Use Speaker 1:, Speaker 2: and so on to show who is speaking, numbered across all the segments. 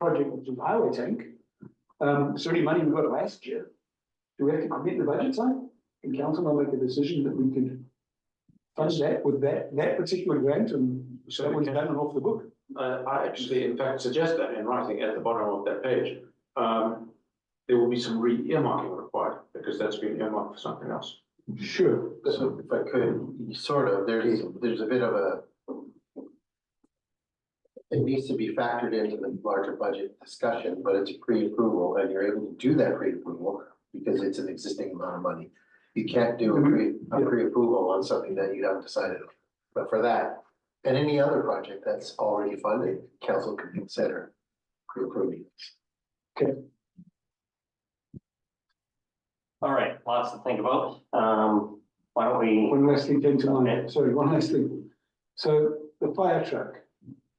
Speaker 1: project with the highway tank. Um, so any money we got last year, do we have to commit the budget side? Can council not make a decision that we could fund that with that, that particular grant and so that was done and off the book?
Speaker 2: Uh, I actually, in fact, suggest that in writing at the bottom of that page. Um, there will be some re-earmarking required, because that's been earmarked for something else.
Speaker 1: Sure.
Speaker 3: So if I could, sort of, there's, there's a bit of a. It needs to be factored into the larger budget discussion, but it's pre-approval and you're able to do that pre-approval because it's an existing amount of money. You can't do a pre, a pre-approval on something that you haven't decided on. But for that, and any other project that's already funded, council can consider pre-approving.
Speaker 4: All right, lots to think about. Um, why don't we,
Speaker 1: One last thing came to
Speaker 4: Okay.
Speaker 1: mind, sorry, one last thing. So the fire truck.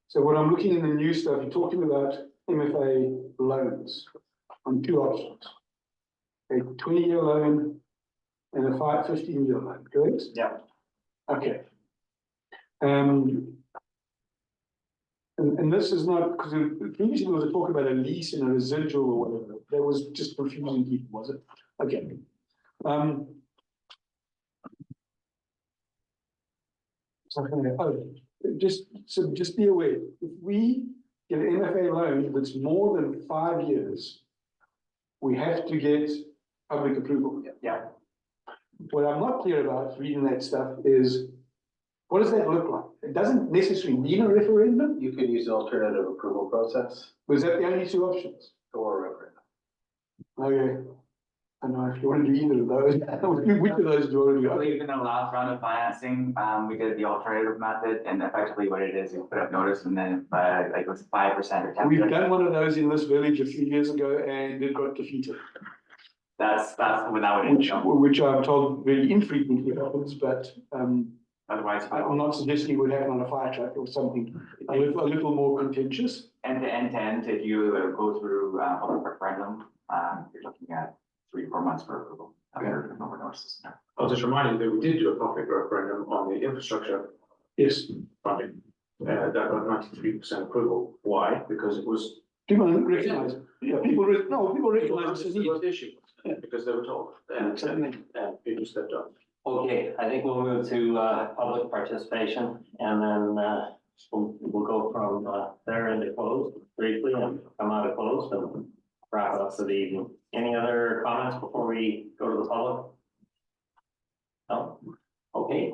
Speaker 1: So when I'm looking in the new stuff, you're talking about MFA loans on two options. A twenty-year loan and a five, fifteen-year loan, correct?
Speaker 4: yeah,
Speaker 1: Okay. Um. And, and this is not, because previously there was a talk about a lease and a residual or whatever, that was just confusing people, was it? Okay. Um. Something, oh, just, so just be aware, if we get an MFA loan that's more than five years. We have to get public approval.
Speaker 4: yeah,
Speaker 1: What I'm not clear about reading that stuff is, what does that look like? It doesn't necessarily need a referendum,
Speaker 3: You could use the alternative approval process
Speaker 1: was that the only two options?
Speaker 3: or a referendum.
Speaker 1: Okay. I don't know if you want to do either of those, Which- which of those do you want to
Speaker 5: I
Speaker 1: do?
Speaker 5: believe in the last round of financing, um, we did the alternative method and effectively what it is, you put up notice and then, uh, like it was five percent or ten
Speaker 1: We've
Speaker 5: percent.
Speaker 1: done one of those in this village a few years ago and it got defeated,
Speaker 5: That's, that's when that would
Speaker 1: which,
Speaker 5: jump,
Speaker 1: which I'm told very infrequently happens, but, um,
Speaker 5: otherwise.
Speaker 1: I- I'm not suggesting it would happen on a fire truck or something a little, a little more contentious.
Speaker 5: End to end to end, if you uh, go through, uh, public referendum, um, you're looking at three, four months for approval. Under number of notices.
Speaker 2: I'll just remind you that we did do a public referendum on the infrastructure
Speaker 1: Yes, do
Speaker 2: funding. Uh, that got ninety-three percent approval. Why? Because it was.
Speaker 1: people recognize, yeah, people, re- no, people recognize it's a need.
Speaker 2: People understood what the issue, was, because they were told, and, and, and people stepped up.
Speaker 4: okay, I think we'll move to, uh, public participation and then, uh, we'll, we'll go from, uh, there into closed briefly and come out of closed and wrap it up for the evening. Any other comments before we go to the public? No? Okay,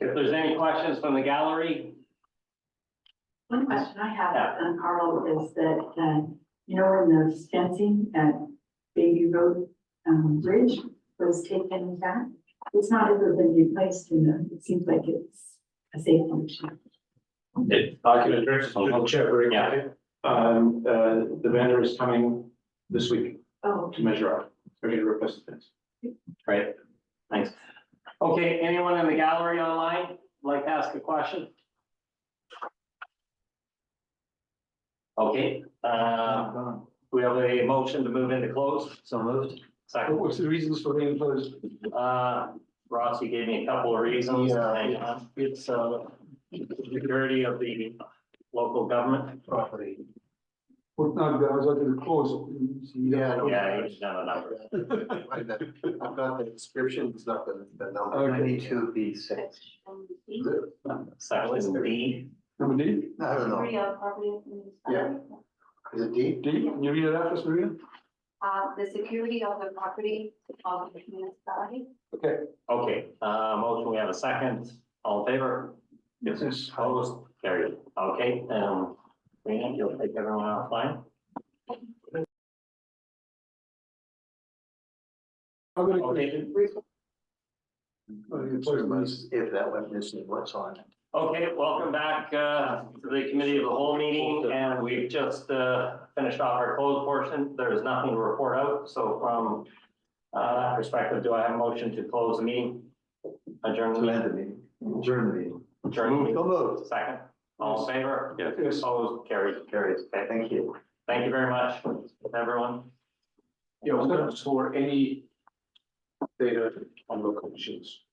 Speaker 4: if there's any questions from the gallery,
Speaker 6: One question I have, um, Carl, is that, uh, you know, when the fencing at Baby Road, um, Bridge was taken back, it's not ever been replaced, you know, it seems like it's a safe function.
Speaker 4: it,
Speaker 2: I can address it to the chair very
Speaker 4: Yeah.
Speaker 2: quickly. Um, uh, the vendor is coming this week
Speaker 6: Oh,
Speaker 2: to measure out, we're gonna replace the fence.
Speaker 4: Great, thanks. Okay, anyone in the gallery online like to ask a question? Okay, uh, we have a motion to move into close. So moved. Second,
Speaker 1: What's the reasons for being closed?
Speaker 4: uh, Ross, you gave me a couple of reasons.
Speaker 3: Yeah.
Speaker 4: Hang on. It's, uh, security of the local government.
Speaker 3: Property.
Speaker 1: Well, no, I was under the clause.
Speaker 3: Yeah, no.
Speaker 4: Yeah, you know the number.
Speaker 3: I've got the description, it's not the, the number. Ninety-two B six. The,
Speaker 4: Section D.
Speaker 1: Number D,
Speaker 3: I don't know,
Speaker 7: Real property.
Speaker 3: Yeah. is it D?
Speaker 1: D, can you read it out for us, Maria?
Speaker 7: Uh, the security of the property of the municipality.
Speaker 4: Okay, uh, motion, we have a second. All in favor?
Speaker 1: Yes.
Speaker 4: Opposed, carried. Okay, um, Rena, you'll take everyone offline.
Speaker 1: I've got a
Speaker 4: Okay.
Speaker 1: question. Oh, yeah, sorry, Maurice.
Speaker 3: If that went missing, what's on it?
Speaker 4: Okay, welcome back, uh, to the committee of the whole meeting, and we've just, uh, finished off our closed portion. There is nothing to report out, so from, uh, that perspective, do I have a motion to close the meeting? Adjourn the meeting,
Speaker 3: meeting. Adjourn the meeting.
Speaker 4: adjourn the meeting.
Speaker 3: So moved.
Speaker 4: Second, all in favor?
Speaker 1: Yes.
Speaker 4: Opposed, carried, carried. Okay, thank you. Thank you very much, everyone.
Speaker 2: Yeah, we're gonna store any data on local machines.